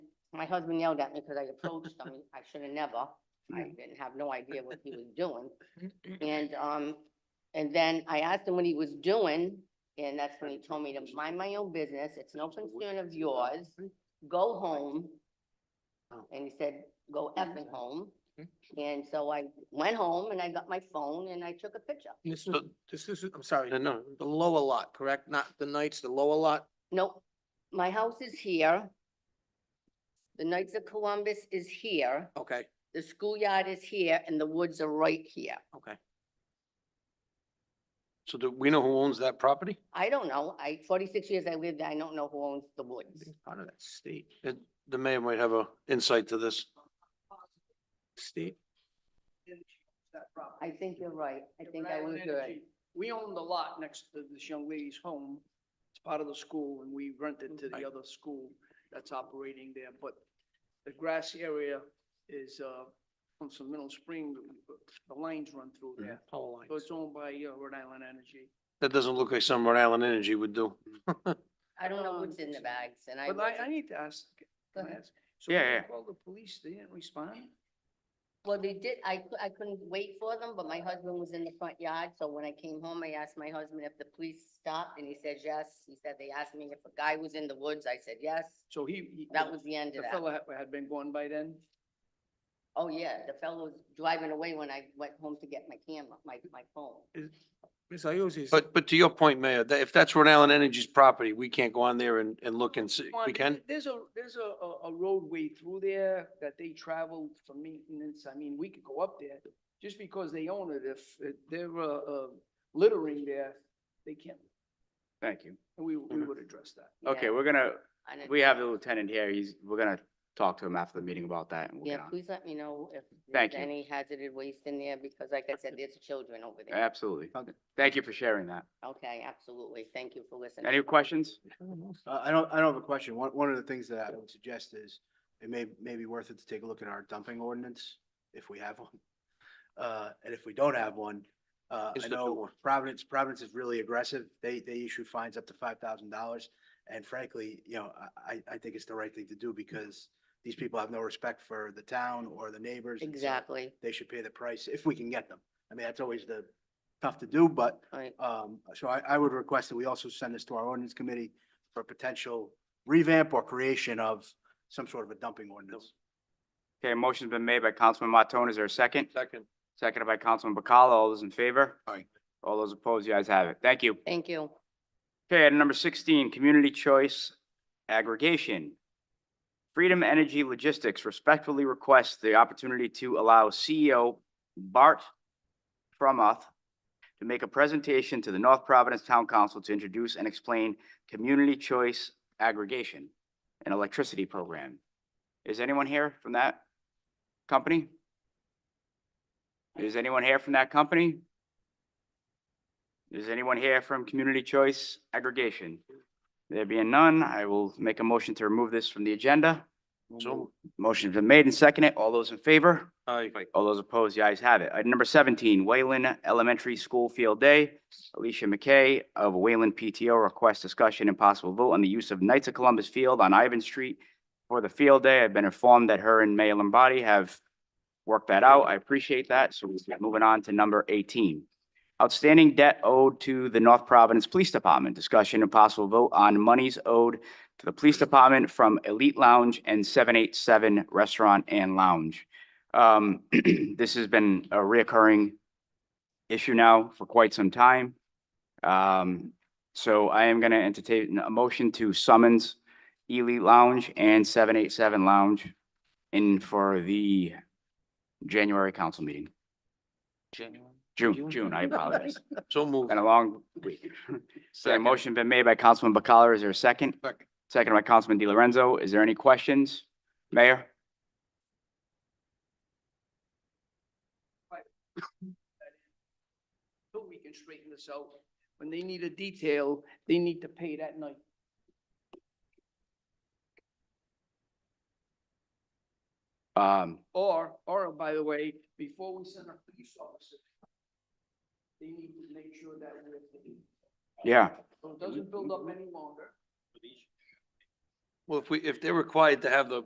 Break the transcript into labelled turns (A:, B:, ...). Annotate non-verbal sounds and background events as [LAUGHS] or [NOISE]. A: my husband yelled at me because I approached him. I should have never. I
B: Mm.
A: didn't have no idea what he was doing. And, um, and then I asked him what he was doing, and that's when he told me to mind my own business. It's no concern of yours. Go home. And he said, go effing home.
B: Mm.
A: And so I went home and I got my phone and I took a picture.
C: This is,
B: So-
C: this is, I'm sorry,
B: No, no,
C: the lower lot, correct? Not the Knights, the lower lot?
A: Nope, my house is here. The Knights of Columbus is here.
C: Okay,
A: The schoolyard is here and the woods are right here.
C: okay.
B: so do we know who owns that property?
A: I don't know. I, forty-six years I lived there. I don't know who owns the woods.
C: It's Part of that state,
B: It, the mayor might have a insight to this.
C: state.
A: I think you're right. I think I was good.
D: We own the lot next to this young lady's home. It's part of the school and we rent it to
B: Right.
D: the other school that's operating there, but the grass area is, uh, from some Middle Spring, the lines run through there.
C: Power
D: So
C: lines.
D: it's owned by, uh, Rhode Island Energy.
B: That doesn't look like some Rhode Island Energy would do.
A: I don't know what's
D: Um,
A: in the bags and I.
D: But I, I
A: wasn't-
D: need to ask,
A: Go
D: can I
A: ahead.
D: ask? So
B: Yeah,
D: when you
B: yeah.
D: called the police, they didn't respond?
A: Well, they did, I, cou- I couldn't wait for them, but my husband was in the front yard, so when I came home, I asked my husband if the police stopped and he said yes. He said they asked me if a guy was in the woods. I said yes.
D: So he. he-
A: That was the end
D: The
A: of that.
D: fellow had- had been gone by then?
A: Oh, yeah, the fellow was driving away when I went home to get my camera, my, my phone.
C: Ms. Iuzzi's,
B: But, but to your point, Mayor, that if that's Rhode Island Energy's property, we can't go on there and, and look and see,
D: Come on,
B: we can?
D: There's a, there's a, a- a roadway through there that they travel for maintenance. I mean, we could go up there. Just because they own it, if it- they're, uh, uh, littering there, they can't,
E: Thank you.
D: and we, we
B: Mhm.
D: would address that.
A: Yeah,
E: Okay, we're gonna,
A: I didn't-
E: we have the lieutenant here. He's, we're gonna talk to him after the meeting about that and we'll
A: Yeah,
E: get on.
A: please let me know if
E: Thank
A: there's
E: you.
A: any hazardous waste in there, because like I said, there's children over there.
E: Absolutely. Thank you for sharing that.
A: Okay, absolutely. Thank you for listening.
E: Any questions?
F: Uh, I don't, I don't have a question. One, one of the things that I would suggest is it may, may be worth it to take a look at our dumping ordinance, if we have one. Uh, and if we don't have one, uh,
B: Is
F: I
B: the-
F: know Providence, Providence is really aggressive. They, they issue fines up to five thousand dollars. And frankly, you know, I, I, I think it's the right thing to do because these people have no respect for the town or the neighbors. and so
A: Exactly,
F: They should pay the price if we can get them. I mean, that's always the tough to do, but
A: right.
F: um, so I, I would request that we also send this to our ordinance committee for potential revamp or creation of some sort of a dumping ordinance.
E: Okay, motion's been made by Councilman Martone. Is there a second?
B: Second.
E: Seconded by Councilman Bacala. All those in favor?
F: Aye.
E: All those opposed? You guys have it. Thank you.
A: Thank you.
E: Okay, item number sixteen, community choice aggregation. Freedom Energy Logistics respectfully requests the opportunity to allow E CEO Bart Frommuth to make a presentation to the North Providence Town Council to introduce and explain community choice aggregation and electricity program. Is anyone here from that company? Is anyone here from that company? Is anyone here from community choice aggregation? There being none, I will make a motion to remove this from the agenda.
B: So,
E: Motion's been made and seconded. All those in favor?
B: aye.
E: All those opposed, the ayes have it. Item number seventeen, Wayland Elementary School Field Day. Alicia McKay of Wayland PTO requests discussion and possible vote on the use of Knights of Columbus Field on Ivan Street for the field day. I've been informed that her and May Lombardi have worked that out. I appreciate that. So we're moving on to number eighteen. Outstanding debt owed to the North Providence Police Department. Discussion and possible vote on monies owed to the Police Department from Elite Lounge and seven eight seven Restaurant and Lounge. Um, [CLEARS THROAT] this has been a reoccurring issue now for quite some time. Um, so I am gonna entertain a motion to summons Ely Lounge and seven eight seven Lounge in for the January council meeting. June, June,
B: [LAUGHS]
E: I apologize.
B: So moved.
E: Been a long week.
B: [LAUGHS]
E: So a
B: Second.
E: motion been made by Councilman Bacala. Is there a second?
B: Second.
E: Second by Councilman Di Lorenzo. Is there any questions? Mayor?
D: So we can straighten this out. When they need a detail, they need to pay that night.
E: Um,
D: Or, or by the way, before we send a police officer, they need to make sure that we're.
E: yeah.
D: So it doesn't build up any longer.
B: Well, if we, if they're required to have the